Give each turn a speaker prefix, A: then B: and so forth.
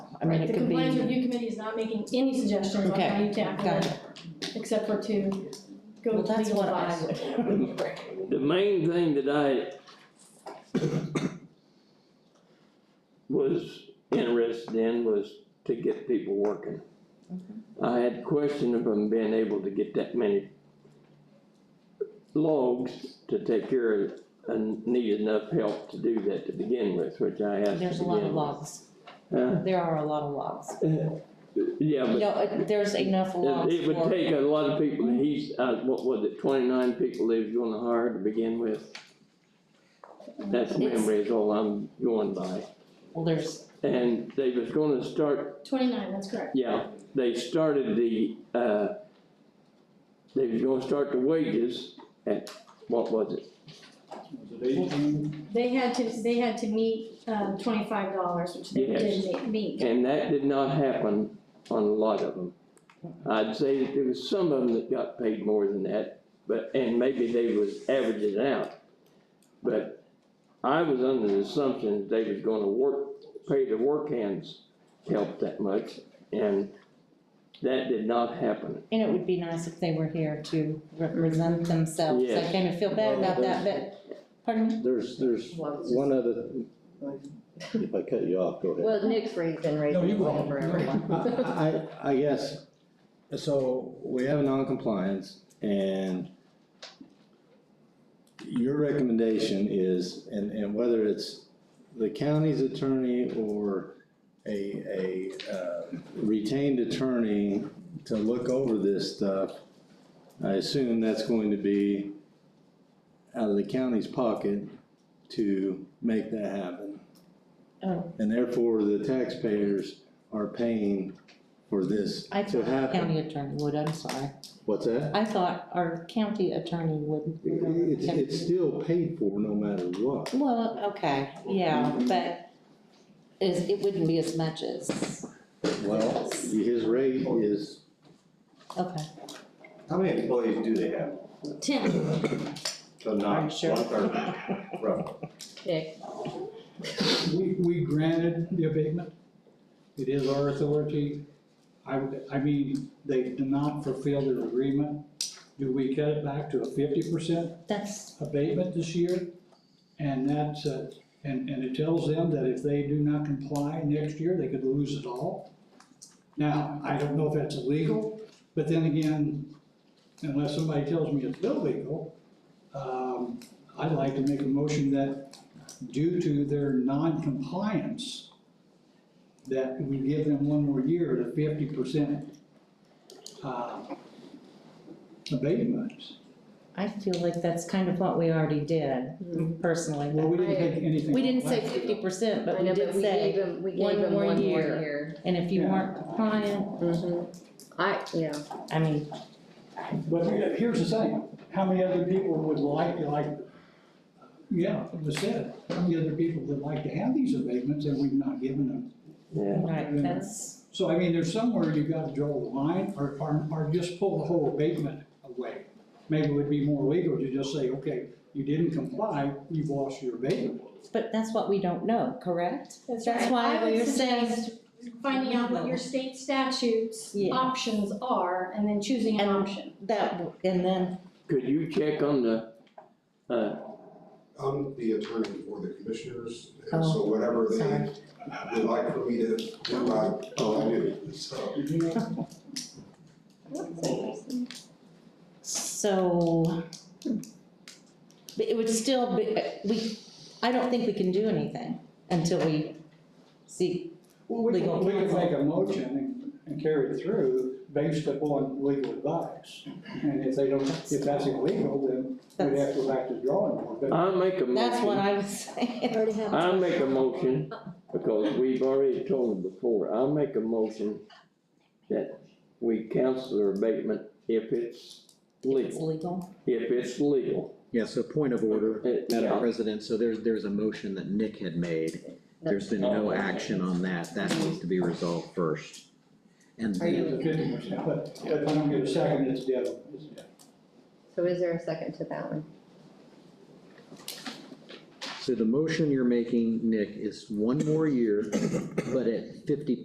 A: I mean, it
B: The
A: could be.
B: compliance review committee is not making any suggestions on
A: Okay,
B: how you tackle
A: gotcha.
B: it, except for to go
A: Well,
B: with
A: that's
B: legal
A: what I
B: advice.
A: would.
C: The main thing that I was interested in was to get people working. I had question of them being able to get that many logs to take care of and need enough help to do that to begin with, which I asked to
A: There's a lot of
C: begin with.
A: logs,
C: Huh?
A: there are a lot of logs.
C: Yeah,
A: You
C: but
A: know, it- there's enough logs
C: it, it would
A: for,
C: take a lot of people, he's, uh, what was it, twenty-nine people they was gonna hire to begin with? That's
A: It's-
C: memory is all I'm going by,
A: well, there's,
C: and they was gonna start
B: Twenty-nine, that's correct.
C: yeah, they started the, uh, they was gonna start the wages at, what was it?
B: They had to, they had to meet, um, twenty-five dollars, which they
C: Yes.
B: did ma- meet.
C: And that did not happen on a lot of them. I'd say that there was some of them that got paid more than that, but, and maybe they was averaging it out. But I was under the assumption that they was gonna work, pay the work hands help that much, and that did not happen.
A: and it would be nice if they were here to represent themselves, I
C: Yes.
A: kind of feel bad about that, but, pardon me?
D: There's, there's one other, if I cut you off, go ahead.
E: Well, Nick's raised and raised
D: No, you go
E: one
D: on.
E: for everyone.
D: I, I- I guess, so we have a non-compliance and your recommendation is, and, and whether it's the county's attorney or a, a uh, retained attorney to look over this stuff, I assume that's going to be out of the county's pocket to make that happen.
A: Oh.
D: And therefore, the taxpayers are paying for this
A: I
D: to
A: thought
D: happen.
A: county attorney would, I'm sorry,
D: What's that?
A: I thought our county attorney would.
D: It's, it's still paid for no matter what.
A: Well, okay, yeah, but is, it wouldn't be as much as,
D: Well, his rate is
A: okay,
F: How many employees do they have?
B: Ten,
F: So not
A: I'm
F: one
A: sure.
F: third, roughly.
E: Nick,
G: We, we granted the abatement. It is our authority. I, would- I mean, they did not fulfill their agreement. Do we cut it back to a fifty percent
A: that's,
G: abatement this year? And that's, uh, and, and it tells them that if they do not comply next year, they could lose it all. Now, I don't know if that's illegal, but then again, unless somebody tells me it's illegal, um, I'd like to make a motion that due to their non-compliance, that we give them one more year at a fifty percent, uh, abatement.
A: I feel like that's kind of what we already did, personally.
G: Well, we didn't take anything.
A: We didn't say
G: last year,
A: fifty percent, but
E: I
A: we
E: know,
A: did
E: but we gave
A: say,
E: him, we
A: one
E: gave him
A: more
E: one more
A: year.
E: year.
A: and if you
G: Yeah.
A: weren't compliant,
E: Mhm.
A: Mm-hmm.
E: I, yeah,
A: I mean,
G: But here's the thing, how many other people would like, like, yeah, it was said, how many other people would like to have these abatements and we've not given them?
C: Yeah.
A: right, that's,
G: So I mean, there's somewhere you've got to draw the line or, or, or just pull the whole abatement away. Maybe it would be more legal to just say, okay, you didn't comply, you've lost your abatement.
A: but that's what we don't know, correct?
B: that's right.
A: That's why
B: I would
A: we're saying-
B: suggest Finding out what your state statutes
A: Yeah.
B: options are and then choosing an
A: And-
B: option.
A: That, w- and then,
C: Could you check on the, uh,
H: I'm the attorney for the commissioners, and so whatever they
A: sorry.
H: would like for me to do, I, oh, I do, so.
A: so. But it would still be, uh, we, I don't think we can do anything until we see,
G: Well, we
A: Legal
G: could, we could
A: counsel.
G: make a motion and, and carry it through based upon legal advice. And if they don't, if that's illegal, then we'd have
A: that's,
G: to go back to the drawing board. But
C: I'll make a
A: that's what
C: motion,
A: I was saying.
C: I'll make a motion, because we've already told them before, I'll make a motion that we cancel their abatement if it's
A: It's
C: legal,
A: legal,
C: if it's legal.
I: Yeah, so point of order,
C: Uh,
I: Madam
C: yeah.
I: President, so there's, there's a motion that Nick had made. There's been
E: Oh,
I: no action on that, that needs to be resolved first. And
E: Are you-
I: then,
G: It's fifty percent, but, but if I don't get a second, it's dead, it's dead.
E: so is there a second to that one?
I: so the motion you're making, Nick, is one more year, but at fifty